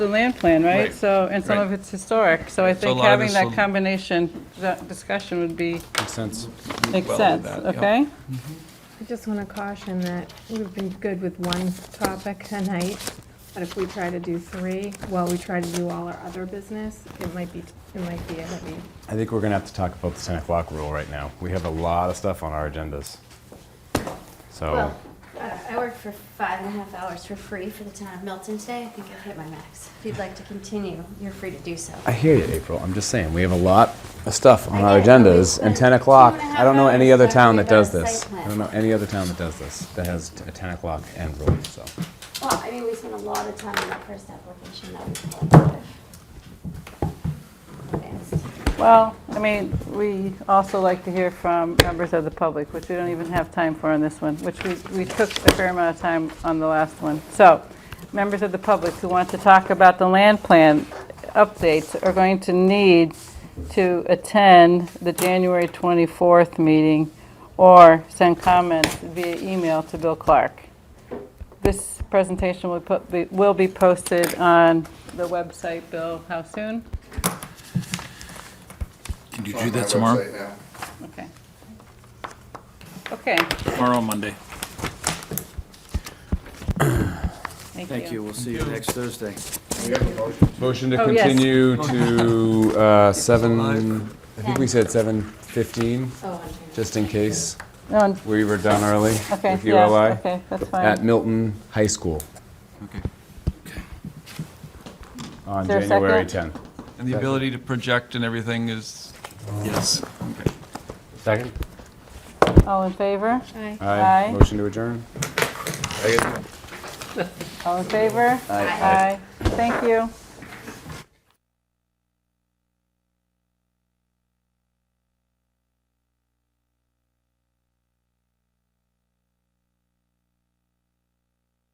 the land plan, right? Right, So, and some right. of it's historic, so I So a think lot of having this that will- combination, that discussion would be, Makes sense. makes Well, sense, that, yep. okay? I just want to caution that we've been good with one topic tonight, but if we try to do three, while we try to do all our other business, it might be, it might be a heavy. I think we're going to have to talk about the 10 o'clock rule right now. We have a lot of stuff on our agendas. So, Oh. Well, I- I worked for five and a half hours for free for the town of Milton today. I think I've hit my max. If you'd like to continue, you're free to do so. I hear you, April. I'm just saying, we have a lot of stuff on our I get it, but we agendas. And spent 10 two o'clock, and a I don't know half any hours other talking town that about does a site this. I plan. don't know any other town that does this, that has t- a 10 o'clock end rule, so. Well, I mean, we spent a lot of time on that first application that we pulled. Advanced. Well, I mean, we also like to hear from members of the public, which we don't even have time for on this one, which we, we took a fair amount of time on the last one. So, members of the public who want to talk about the land plan updates are going to need to attend the January 24th meeting or send comments via email to Bill Clark. This presentation will put- be- will be posted on the website, Bill, how soon? Can you It's do on my that tomorrow? website now. Okay. Okay, Tomorrow, Monday. thank you. We'll see you next Thursday. We have a motion. Motion to Oh, yes. continue to uh, 7, I think we said 7:15, Oh, I'm trying to- just in case No, we were done early Okay, with yeah, ULI. okay, that's At fine. Milton High School Okay. on Is there a January second? 10th. And the ability to project and everything is? Yes. Okay. Second? All in favor? Aye. Aye. Aye. Motion to adjourn? I get- All in favor? Aye. Thank you.